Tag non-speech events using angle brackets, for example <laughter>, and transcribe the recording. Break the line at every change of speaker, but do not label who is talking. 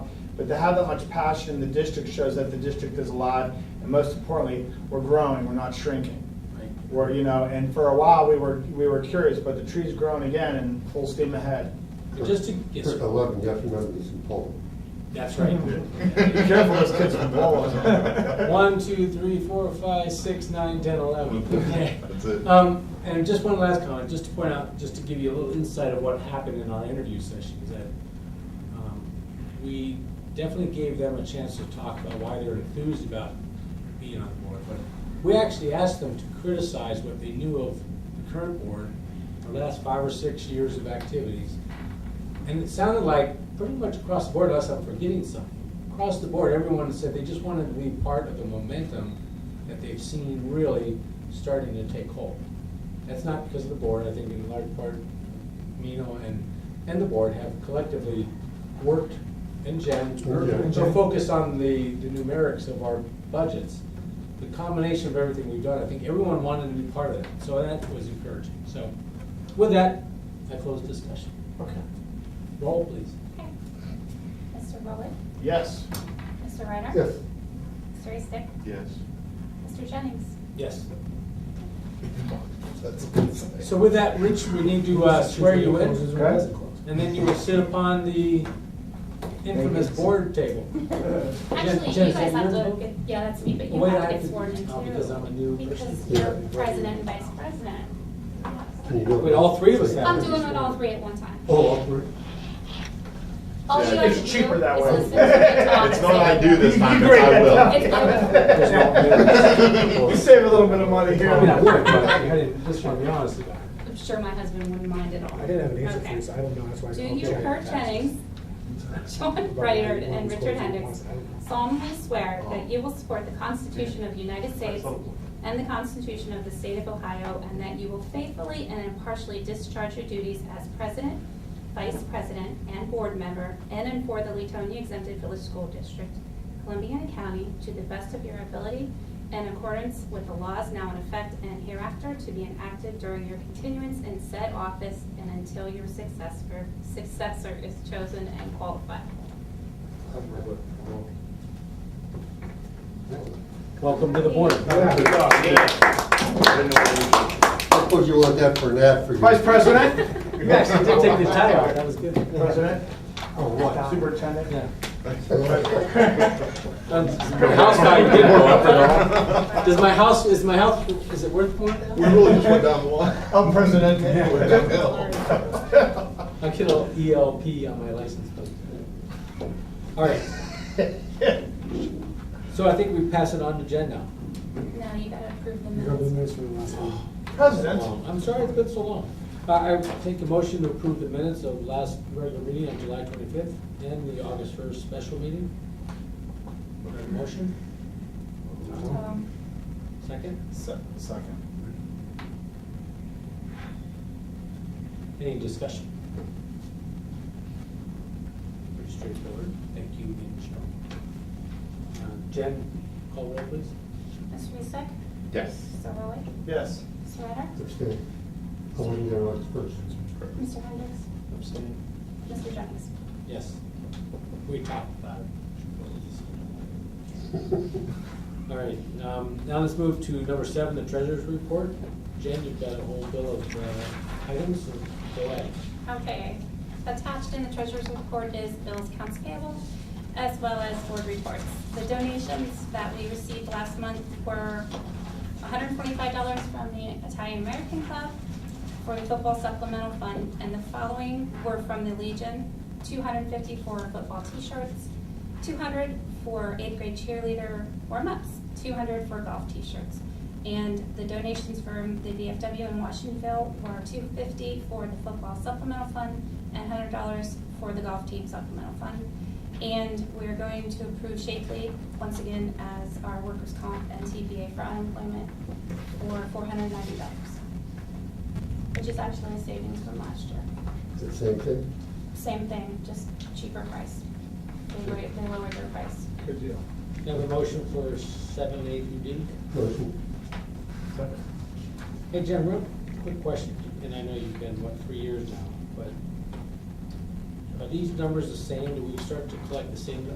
But to have that much passion in the district shows that the district is alive, and most importantly, we're growing, we're not shrinking. We're, you know, and for a while, we were, we were curious, but the tree's grown again and full steam ahead.
Just to, yes,
Kirk, I
sir.
love him, you have to remember this in Poland.
that's right.
<laughs> Be careful, those kids from Poland. <laughs>
One, two, three, four, five, six, nine, ten, eleven. Okay.
That's it.
Um, and just one last comment, just to point out, just to give you a little insight of what happened in our interview session, is that um, we definitely gave them a chance to talk about why they're enthused about being on the board, but we actually asked them to criticize what they knew of the current board, the last five or six years of activities, and it sounded like pretty much across the board, unless I'm forgetting something, across the board, everyone said they just wanted to be part of the momentum that they've seen really starting to take hold. That's not because of the board, I think in large part, Mino and, and the board have collectively worked, and Jen,
Yeah.
so focused on the, the numerics of our budgets. The combination of everything we've done, I think everyone wanted to be part of it, so that was encouraging. So with that, I close discussion.
Okay.
Roll, please.
Okay. Mr. Rowland?
Yes.
Mr. Reiner?
Yes,
Mr. Eastick?
Yes.
Mr.
<laughs>
Jennings?
Yes.
That's a good sign.
So with that, Rich, we need to uh, swear you in,
Okay.
and then you will sit upon the infamous board table.
Actually,
Jen,
you
is that
guys have
yours,
to,
Bob?
get- yeah, that's me, but you
Wait,
have
I
to
have to-
get sworn in
oh, because I'm a new
too. Because
person.
you're
Yeah.
president and vice president.
can you do it?
Wait, all three of us have-
I'm doing it all three at one time.
Oh, all three?
All
Yeah,
you have
it's
to do is
cheaper that way.
<laughs>
listen to the talk
It's not I
and
do
say-
this time,
You
it's
grade
I
that <laughs>
will.
down.
It's-
You save a little bit of money here.
I mean, I worked, but I didn't, just want to be honest about it.
I'm sure my husband wouldn't mind at all.
I didn't have an answer for
Okay.
you, so I don't know, that's why. I
Do
called
you,
Jared.
Kurt Jennings, John Brainerd, and Richard Hendricks solemnly swear that you will support the Constitution of the United States and the Constitution of the State of Ohio, and that you will faithfully and impartially discharge your duties as president, vice president, and board member in and for the Letonia Exempted Village School District, Columbiana County, to the best of your ability in accordance with the laws now in effect and hereafter to be enacted during your continuance in said office and until your successor, successor is chosen and qualified.
Welcome to the board.
I'll put you on that for an ad for you.
Vice
<laughs>
President?
You actually did take the tie off, that was good.
President?
Oh, what?
Superintendent?
Yeah.
President.
Um, the House value <laughs> did go up at all. Does my house, is my house, is it worth more now?
We really just went down the line.
El Presidente.
I get a little ELP on my license plate. All right, so I think we pass it on to Jen now.
Now you gotta approve the
You got the minutes
minutes.
from last time.
President?
I'm sorry it's been so long. Uh, I, I take a motion to approve the minutes of last regular meeting on July twenty-fifth and the August first special meeting. Do I have a Motion,
Um,
second,
Se- Second.
any discussion? Pretty straightforward, thank you, Michelle. Uh, Jen, call roll please.
Mr. Eastick?
Yes.
Mr. Rowley?
Yes.
Mr. Reiner?
Abstain. I wasn't there on the first. <laughs>
Mr. Hendricks?
Abstain.
Mr. Jennings?
Yes. We talked about it. All right, um, now let's move to number seven, the treasurer's report. Jen, you've got a whole bill of uh, items, so go ahead.
Okay, attached in the treasurer's report is bills, accounts payable, as well as board reports. The donations that we received last month were $145 from the Italian American Club for the football supplemental fund, and the following were from the Legion, 254 football t-shirts, 200 for eighth grade cheerleader warm-ups, 200 for golf t-shirts. And the donations from the VFW in Washingtonville were 250 for the football supplemental fund and $100 for the golf team supplemental fund. And we're going to approve Shakely once again as our workers' comp and TPA for unemployment for $490, which is actually a savings from last year.
Is it same thing?
Same thing, just cheaper price. They lowered, they lowered their price.
Good deal.
Have a motion for seven, eight, and D.
Motion?
Second.
Hey, Jen, real quick question, and I know you've been, what, three years now, but are these numbers the same? Do we start to collect the same